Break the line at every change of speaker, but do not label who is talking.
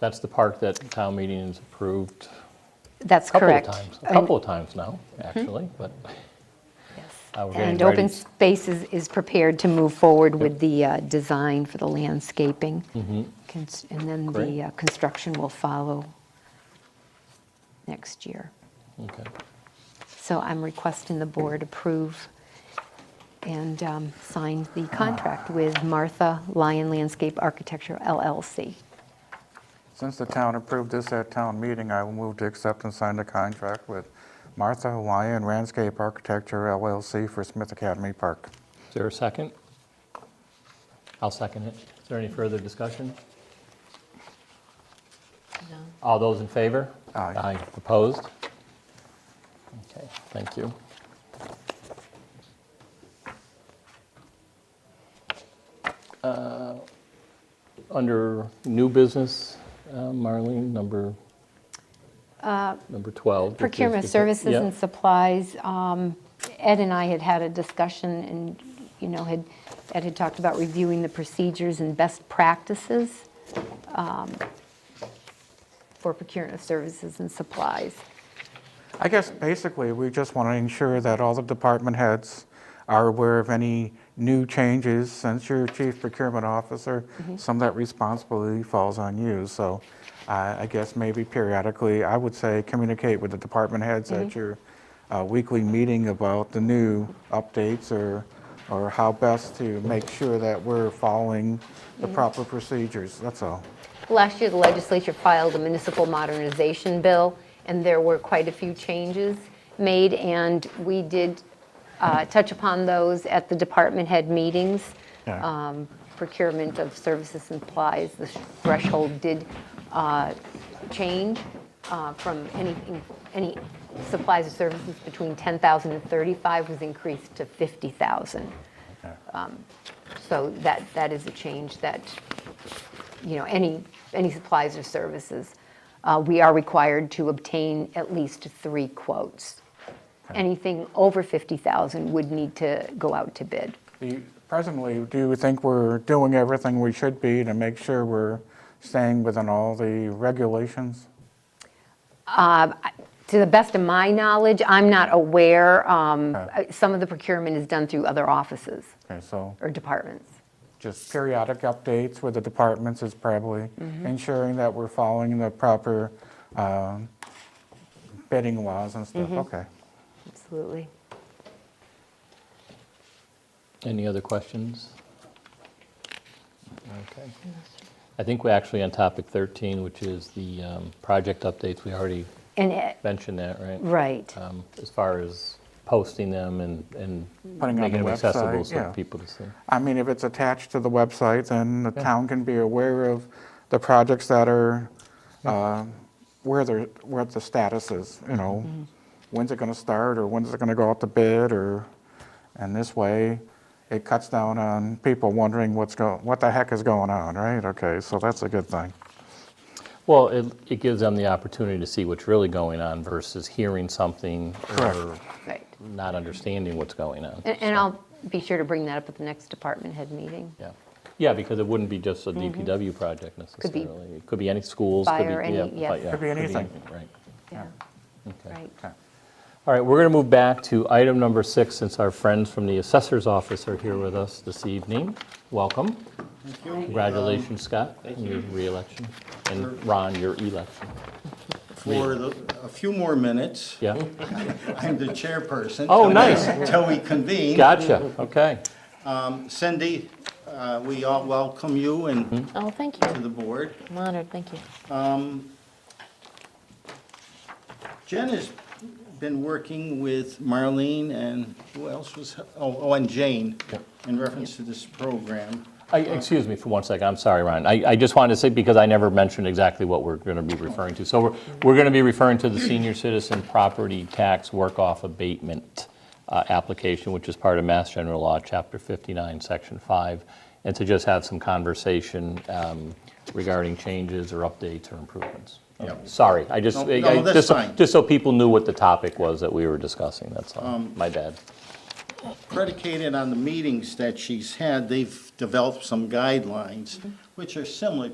That's the park that town meeting has approved
That's
a couple of
correct.
times, a
And-
couple of times now, actually, but uh, we're getting
And
ready.
Open Spaces is prepared to move forward with the uh, design for the landscaping. Cons- And then
Mm-hmm. Great.
the uh, construction will follow next year.
Okay.
So I'm requesting the board approve and um, sign the contract with Martha Lyon Landscape Architecture LLC.
Since the town approved this at town meeting, I will move to accept and sign the contract with Martha Hawaiian Landscape Architecture LLC for Smith Academy Park.
Is there a second? I'll second it. Is there any further discussion? All those in favor?
Aye.
Opposed? Okay, thank you. Uh, Under new business, uh, Marlene, number, number 12. which is-
Uh, Procurement services
Yeah.
and supplies, um, Ed and I had had a discussion and, you know, had, Ed had talked about reviewing the procedures and best practices um, for procurement of services and supplies.
I guess basically, we just want to ensure that all the department heads are aware of any new changes since you're chief procurement officer. Some of that responsibility falls on you, so I I guess maybe periodically, I would say communicate with the department heads at your uh, weekly meeting about the new updates or, or how best to make sure that we're following the proper procedures, that's all.
Last year, the legislature filed a municipal modernization bill, and there were quite a few changes made, and we did uh, touch upon those at the department head meetings.
Yeah.
Um, Procurement of services and supplies, the threshold did uh, change uh, from any, any supplies or services between 10,000 and 35 was increased to 50,000. Um, So that, that is a change that you know, any, any supplies or services, uh, we are required to obtain at least three quotes. Anything over 50,000 would need to go out to bid.
Do you- Presently, do you think we're doing everything we should be to make sure we're staying within all the regulations?
Um, To the best of my knowledge, I'm not aware, um, uh, some of the procurement is done through other offices
Okay, so
or departments.
just periodic updates with the departments is probably ensuring that we're following the proper um, bidding laws and stuff. Okay.
Absolutely.
Any other questions? Okay. I think we're actually on topic 13, which is the um, project updates. We already
And, it-
mentioned that, right?
right.
Um, As far as posting them and, and
Putting on
making
the
them accessible
website,
so
yeah.
people to see.
I mean, if it's attached to the website, then the town can be aware of the projects that are, um, where they're, what the status is, you know? When's it gonna start, or when's it gonna go out to bid, or, and this way, it cuts down on people wondering what's go, what the heck is going on, right? Okay, so that's a good thing.
Well, it, it gives them the opportunity to see what's really going on versus hearing something
Correct.
or
Right.
not understanding what's going on.
And- And I'll be sure to bring that up at the next department head meeting.
Yeah, yeah, because it wouldn't be just a DPW project
Mm-hmm. be
necessarily. It could be any schools, could be,
fire, any-
yeah,
yes.
but yeah,
Could be anything.
Right,
Yeah,
okay.
right.
Okay.
All right, we're going to move back to item number six, since our friends from the assessor's office are here with us this evening. Welcome. Congratulations, Scott, on your reelection, and Ron, your election.
for the- a few more minutes.
Yeah,
I'm the chairperson.
Oh,
till we-
nice.
Till we convene.
gotcha, okay.
Cindy, uh, we all welcome you and
Mm-hmm.
Oh, thank
to
you.
the board. Um,
I'm honored, thank you.
Jen has been working with Marlene and who else was, oh, oh, and Jane in reference to this program.
I- Excuse me for one second, I'm sorry, Ron. I I just wanted to say, because I never mentioned exactly what we're going to be referring to. So we're we're going to be referring to the senior citizen property tax work-off abatement uh, application, which is part of Mass General Law, Chapter 59, Section 5, and to just have some conversation um, regarding changes or updates or improvements.
Yep.
Sorry, I just,
No,
I-
no,
I-
that's
just so-
fine.
just so people knew what the topic was that we were discussing, that's all.
Um,
My bad.
Mm-hmm.
Predicated on the meetings that she's had, they've developed some guidelines, which are similar